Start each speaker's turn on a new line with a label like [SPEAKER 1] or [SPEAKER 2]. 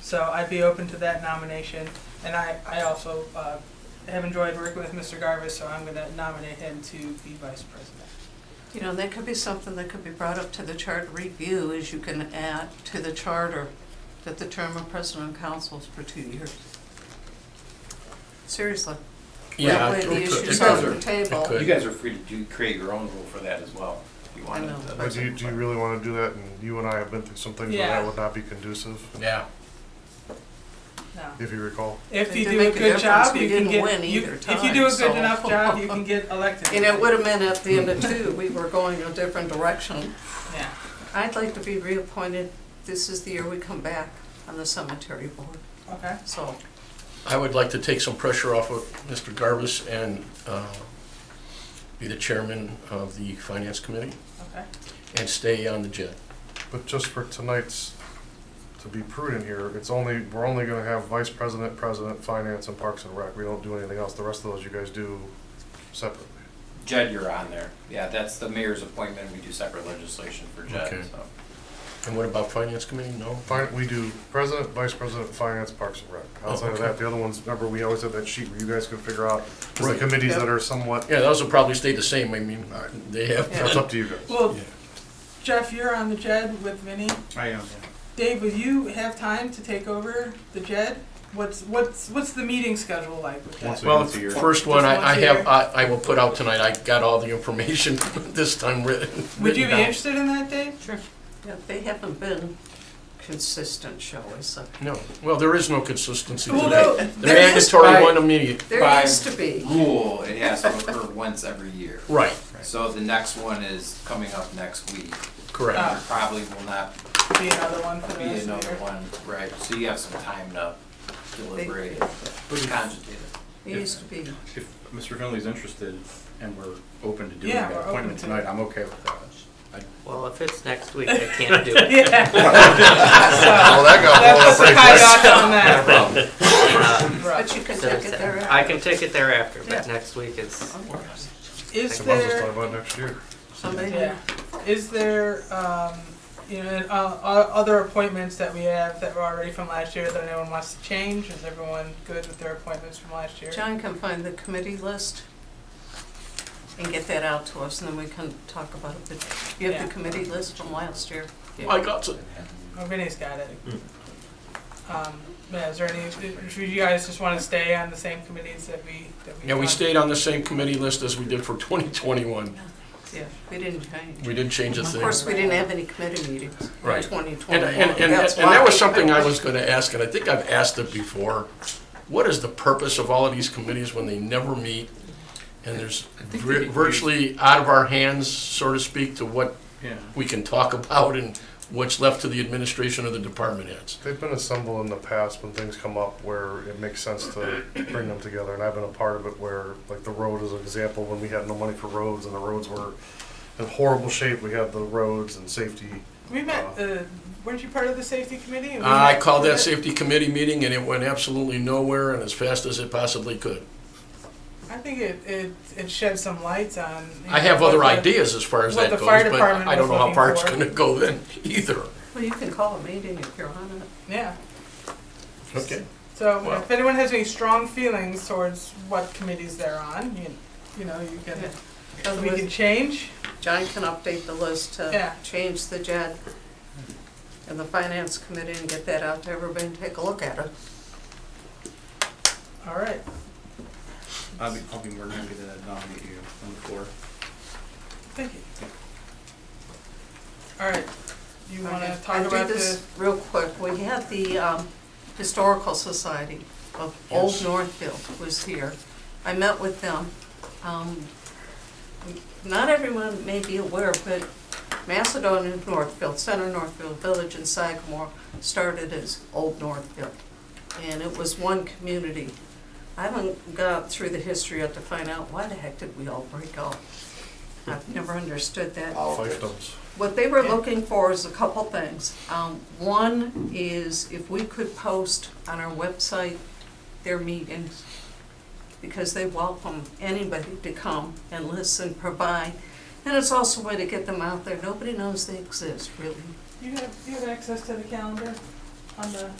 [SPEAKER 1] So I'd be open to that nomination. And I, I also uh, have enjoyed working with Mr. Garvis, so I'm going to nominate him to be vice president.
[SPEAKER 2] You know, that could be something that could be brought up to the charter review, is you can add to the charter that the term of president and council is for two years. Seriously. That
[SPEAKER 3] Yeah,
[SPEAKER 2] way the
[SPEAKER 3] it could-
[SPEAKER 2] issue's
[SPEAKER 3] it
[SPEAKER 2] off
[SPEAKER 3] could.
[SPEAKER 2] the table.
[SPEAKER 3] It could.
[SPEAKER 4] You guys are free to do, create your own rule for that as well, if you wanted.
[SPEAKER 2] know.
[SPEAKER 4] to.
[SPEAKER 5] But do you, do you really want to do that? And you and I have been through some things where
[SPEAKER 1] Yeah.
[SPEAKER 5] that would not be conducive,
[SPEAKER 3] Yeah,
[SPEAKER 1] No.
[SPEAKER 5] if you recall.
[SPEAKER 1] If
[SPEAKER 2] It
[SPEAKER 1] you
[SPEAKER 2] didn't
[SPEAKER 1] do a
[SPEAKER 2] make a
[SPEAKER 1] good job,
[SPEAKER 2] difference. We
[SPEAKER 1] you can
[SPEAKER 2] didn't win
[SPEAKER 1] get, you-
[SPEAKER 2] either
[SPEAKER 1] if you do a
[SPEAKER 2] time,
[SPEAKER 1] good
[SPEAKER 2] so.
[SPEAKER 1] enough job, you can get elected.
[SPEAKER 2] And it would have meant at the end of two, we were going a different direction.
[SPEAKER 1] Yeah.
[SPEAKER 2] I'd like to be reappointed, this is the year we come back on the cemetery board,
[SPEAKER 1] Okay.
[SPEAKER 2] so.
[SPEAKER 3] I would like to take some pressure off of Mr. Garvis and uh, be the chairman of the finance committee
[SPEAKER 1] Okay.
[SPEAKER 3] and stay on the jet.
[SPEAKER 5] But just for tonight's, to be prudent here, it's only, we're only going to have vice president, president, finance, and parks and rec. We don't do anything else. The rest of those you guys do separately.
[SPEAKER 4] Judd, you're on there. Yeah, that's the mayor's appointment. We do separate legislation for Judd,
[SPEAKER 3] Okay.
[SPEAKER 4] so.
[SPEAKER 3] And what about finance committee? No?
[SPEAKER 5] Fin- we do president, vice president, finance, parks and rec.
[SPEAKER 3] Oh,
[SPEAKER 5] Outside of
[SPEAKER 3] okay.
[SPEAKER 5] that, the other ones, remember, we always have that sheet where you guys could figure out, 'cause the
[SPEAKER 3] Right.
[SPEAKER 5] committees that
[SPEAKER 2] Yep.
[SPEAKER 5] are somewhat,
[SPEAKER 3] Yeah, those will probably stay the same. I mean, they have.
[SPEAKER 5] that's up to you guys.
[SPEAKER 1] Well,
[SPEAKER 3] Yeah.
[SPEAKER 1] Jeff, you're on the JED with Vinny.
[SPEAKER 6] I am.
[SPEAKER 1] Dave, will you have time to take over the JED? What's, what's, what's the meeting schedule like with
[SPEAKER 6] Once
[SPEAKER 1] that?
[SPEAKER 6] a-
[SPEAKER 3] Well,
[SPEAKER 6] Once a year.
[SPEAKER 3] first one
[SPEAKER 1] Just
[SPEAKER 3] I I
[SPEAKER 1] once a year.
[SPEAKER 3] have, I I will put out tonight. I got all the information this time written.
[SPEAKER 1] Would you be
[SPEAKER 3] written down.
[SPEAKER 1] interested in that, Dave?
[SPEAKER 2] Sure. Yeah, they haven't been consistent, shall we say.
[SPEAKER 3] No. Well, there is no consistency
[SPEAKER 1] Well,
[SPEAKER 3] today.
[SPEAKER 1] no,
[SPEAKER 3] The
[SPEAKER 2] there is-
[SPEAKER 3] mandatory one immediate.
[SPEAKER 2] There
[SPEAKER 4] By-
[SPEAKER 2] used to be.
[SPEAKER 4] Rule, it has to occur once every year.
[SPEAKER 3] Right,
[SPEAKER 4] So the next one is coming up next week.
[SPEAKER 3] correct.
[SPEAKER 1] Ah.
[SPEAKER 4] There probably will not
[SPEAKER 1] Be another one for the
[SPEAKER 4] be
[SPEAKER 1] rest of the
[SPEAKER 4] another
[SPEAKER 1] year.
[SPEAKER 4] one, right? So you have some time to deliberate, cogitate it.
[SPEAKER 2] It used to be.
[SPEAKER 6] If Mr. Finley's interested and we're open to doing
[SPEAKER 1] Yeah,
[SPEAKER 6] that
[SPEAKER 1] we're open
[SPEAKER 6] appointment
[SPEAKER 1] to
[SPEAKER 6] tonight,
[SPEAKER 1] it.
[SPEAKER 6] I'm okay with that.
[SPEAKER 7] Well, if it's next week, I can't do it.
[SPEAKER 1] Yeah.
[SPEAKER 5] Well,
[SPEAKER 1] So,
[SPEAKER 5] that got
[SPEAKER 1] That
[SPEAKER 5] blown up
[SPEAKER 1] puts a
[SPEAKER 5] pretty
[SPEAKER 1] kibosh on that.
[SPEAKER 2] But
[SPEAKER 1] Right.
[SPEAKER 2] you can
[SPEAKER 7] Uh, So
[SPEAKER 2] take
[SPEAKER 7] it's-
[SPEAKER 2] it there.
[SPEAKER 7] I can take it thereafter, but
[SPEAKER 2] Yeah.
[SPEAKER 7] next week is,
[SPEAKER 1] Is
[SPEAKER 5] Might as well talk
[SPEAKER 1] there,
[SPEAKER 5] about next year.
[SPEAKER 2] Somebody,
[SPEAKER 1] yeah, is there, um, you know, and, uh, o- other appointments that we have that were already from last year that anyone wants to change? Is everyone good with their appointments from last year?
[SPEAKER 2] John can find the committee list and get that out to us, and then we can talk about it. But you have
[SPEAKER 1] Yeah.
[SPEAKER 2] the committee list from last year.
[SPEAKER 3] I got it.
[SPEAKER 1] Oh, Vinny's got it.
[SPEAKER 3] Hmm.
[SPEAKER 1] Um, yeah, is there any, do you guys just wanna stay on the same committees that we, that we?
[SPEAKER 3] Yeah, we
[SPEAKER 1] talked-
[SPEAKER 3] stayed on the same committee list as we did for 2021.
[SPEAKER 2] Yeah, we didn't change.
[SPEAKER 3] We didn't change a
[SPEAKER 2] Of
[SPEAKER 3] thing.
[SPEAKER 2] course, we didn't have any committee meetings in
[SPEAKER 3] Right.
[SPEAKER 2] twenty
[SPEAKER 3] And,
[SPEAKER 2] twenty-one.
[SPEAKER 3] and, and, and that was something I was gonna ask, and I think I've asked it before. What is the purpose of all of these committees when they never meet? And there's
[SPEAKER 6] think
[SPEAKER 3] vir-
[SPEAKER 6] they-
[SPEAKER 3] virtually out of our hands, so to speak, to what
[SPEAKER 6] Yeah.
[SPEAKER 3] we can talk about and what's left to the administration of the department heads.
[SPEAKER 5] They've been assembled in the past when things come up where it makes sense to bring them together, and I've been a part of it where, like, the road is an example, when we had no money for roads and the roads were in horrible shape, we had the roads and safety.
[SPEAKER 1] We met, uh, weren't you part of the safety committee? And we
[SPEAKER 3] I
[SPEAKER 1] met-
[SPEAKER 3] called that
[SPEAKER 1] was it-
[SPEAKER 3] safety committee meeting and it went absolutely nowhere and as fast as it possibly could.
[SPEAKER 1] I think it, it, it shed some lights on. you
[SPEAKER 3] I
[SPEAKER 1] know,
[SPEAKER 3] have
[SPEAKER 1] what
[SPEAKER 3] other
[SPEAKER 1] the-
[SPEAKER 3] ideas as far as
[SPEAKER 1] what
[SPEAKER 3] that
[SPEAKER 1] the
[SPEAKER 3] goes,
[SPEAKER 1] fire
[SPEAKER 3] but
[SPEAKER 1] department
[SPEAKER 3] I don't know
[SPEAKER 1] was
[SPEAKER 3] how
[SPEAKER 1] looking
[SPEAKER 3] far it's
[SPEAKER 1] for.
[SPEAKER 3] gonna go then either.
[SPEAKER 2] Well, you can call a meeting if you're on it.
[SPEAKER 1] Yeah,
[SPEAKER 3] Okay.
[SPEAKER 1] so
[SPEAKER 3] Well-
[SPEAKER 1] if anyone has any strong feelings towards what committees they're on, you, you know, you can, we can
[SPEAKER 2] Otherwise,
[SPEAKER 1] change.
[SPEAKER 2] John can update the list to
[SPEAKER 1] Yeah.
[SPEAKER 2] change the JED and the finance committee and get that out to everybody and take a look at it.
[SPEAKER 1] All right,
[SPEAKER 6] I'll be, I'll be more than happy to nominate you on the floor.
[SPEAKER 1] thank you. All right, you wanna
[SPEAKER 2] I
[SPEAKER 1] talk
[SPEAKER 2] do
[SPEAKER 1] about
[SPEAKER 2] this
[SPEAKER 1] the,
[SPEAKER 2] Real quick, we had the um, Historical Society of Old
[SPEAKER 3] Yes.
[SPEAKER 2] Northfield was here. I met with them. Um, Not everyone may be aware, but Macedonia Northfield, Center Northfield Village and Sagamore started as Old Northfield. And it was one community. I haven't got through the history yet to find out why the heck did we all break up? I've never understood that.
[SPEAKER 5] Fiefdoms.
[SPEAKER 2] What they were looking for is a couple things. Um, One is if we could post on our website their meetings, because they welcome anybody to come and listen, provide. And it's also a way to get them out there. Nobody knows they exist, really.
[SPEAKER 1] you have, you have access to the calendar on the?